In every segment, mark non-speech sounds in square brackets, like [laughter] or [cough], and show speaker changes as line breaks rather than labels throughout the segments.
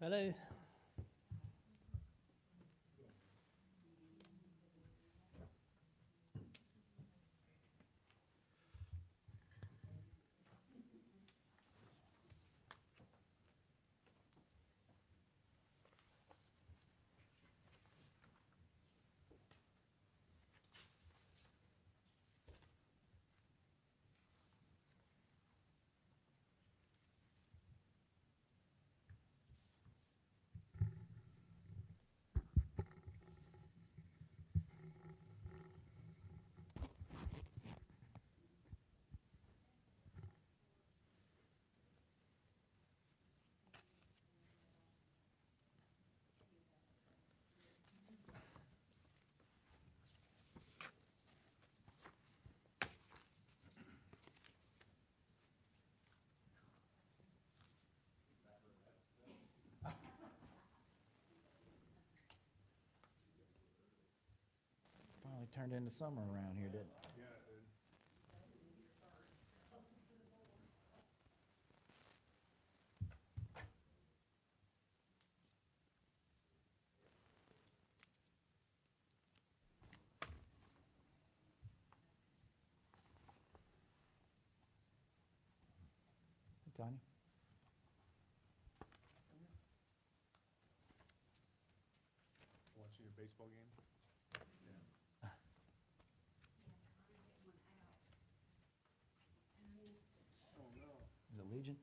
Hello.
Finally turned into summer around here, didn't it? Hey, Tanya?
Watching your baseball game? Oh, no.
Is it Legion?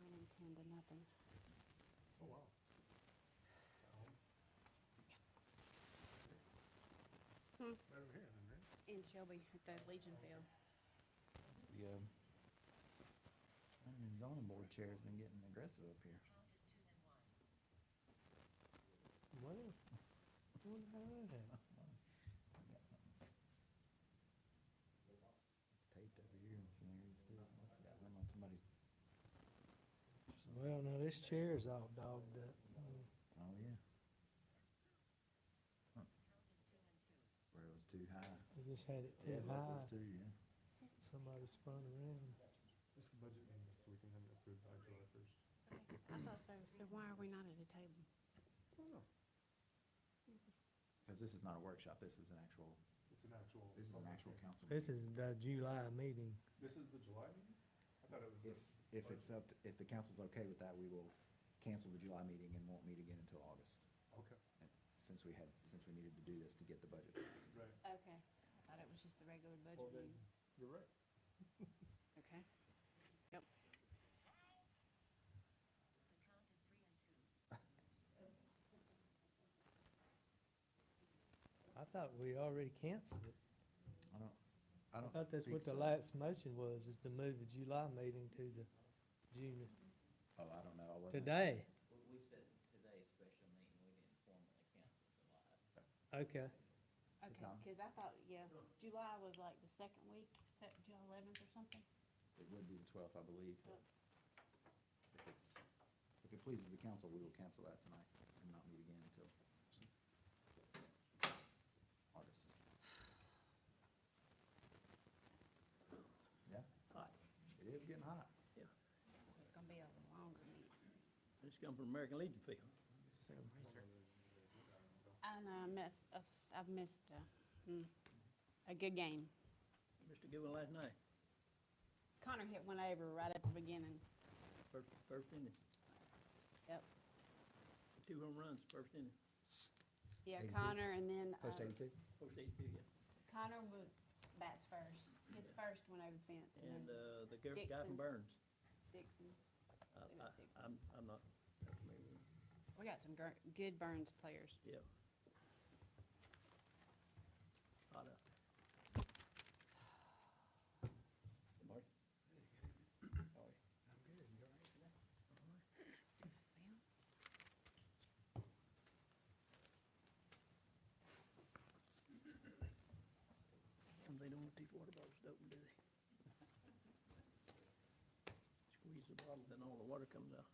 Running ten to nothing.
Oh, wow.
Hmm.
Right over here, then, right?
In Shelby at the Legion Field.
It's The, um, planning and zoning board chair's been getting aggressive up here.
Well, what about that?
[laughs] I got something. It's taped over here in some areas too. Must have got one on somebody's,
Well, now this chair is all dogged up.
oh yeah. Huh. Where it was too high.
We just had it
Yeah,
too
that was
high.
too, yeah.
Somebody spun around.
It's the budget meeting, so we can have it approved by July first.
I thought so. So why are we not at a table?
Oh, no.
Cause this is not a workshop, this is an actual,
It's an actual.
this is an
public
actual
hearing.
council.
This
meeting.
is the July meeting.
This is the July meeting? I thought it was.
If, if it's up, to- if the council's okay with that, we will cancel the July meeting and won't meet again until August.
the- Okay,
Since we had, since we needed to do this to get the budget passed.
right.
Okay. I thought it was just the regular budget
Well, then,
meeting.
you're right.
Okay.
I thought we already canceled it.
I don't, I
I
don't.
thought that's
think
what the
so.
last motion was, is to move the July meeting to the June,
Oh, I don't know, I wasn't.
today.
We, we said today special meeting, we didn't formally cancel July.
Okay,
Okay,
time?
cause I thought, yeah, July was like the second week, sep- July eleventh or something.
It would be the twelfth, I believe. but If it's, if it pleases the council, we will cancel that tonight and not meet again until August. Yeah? Hot. It is getting hot.
So it's gonna be a longer meeting.
This come from American Legion Field.
uh,
I know, I missed, I s- I've missed, uh, hmm, a good game.
Mr. Goodwin last night,
Connor hit one over right at the beginning.
first, first inning.
Yep.
Two home runs, first inning,
Yeah,
82.
Connor and then, uh,
Post eighty-two?
first eighty-two, yeah.
Connor would bats first, hit the first one over the fence and
And,
then
uh, the guy guy
Dixon.
from Burns.
Dixon.
I,
It was
I,
Dixon.
I'm, I'm not, that's me.
We got some gr- good Burns players.
yeah. Hot out there. Good morning. How are you? Damn, they don't want these water bottles to open, do they? Squeeze the bottle, then all the water comes out.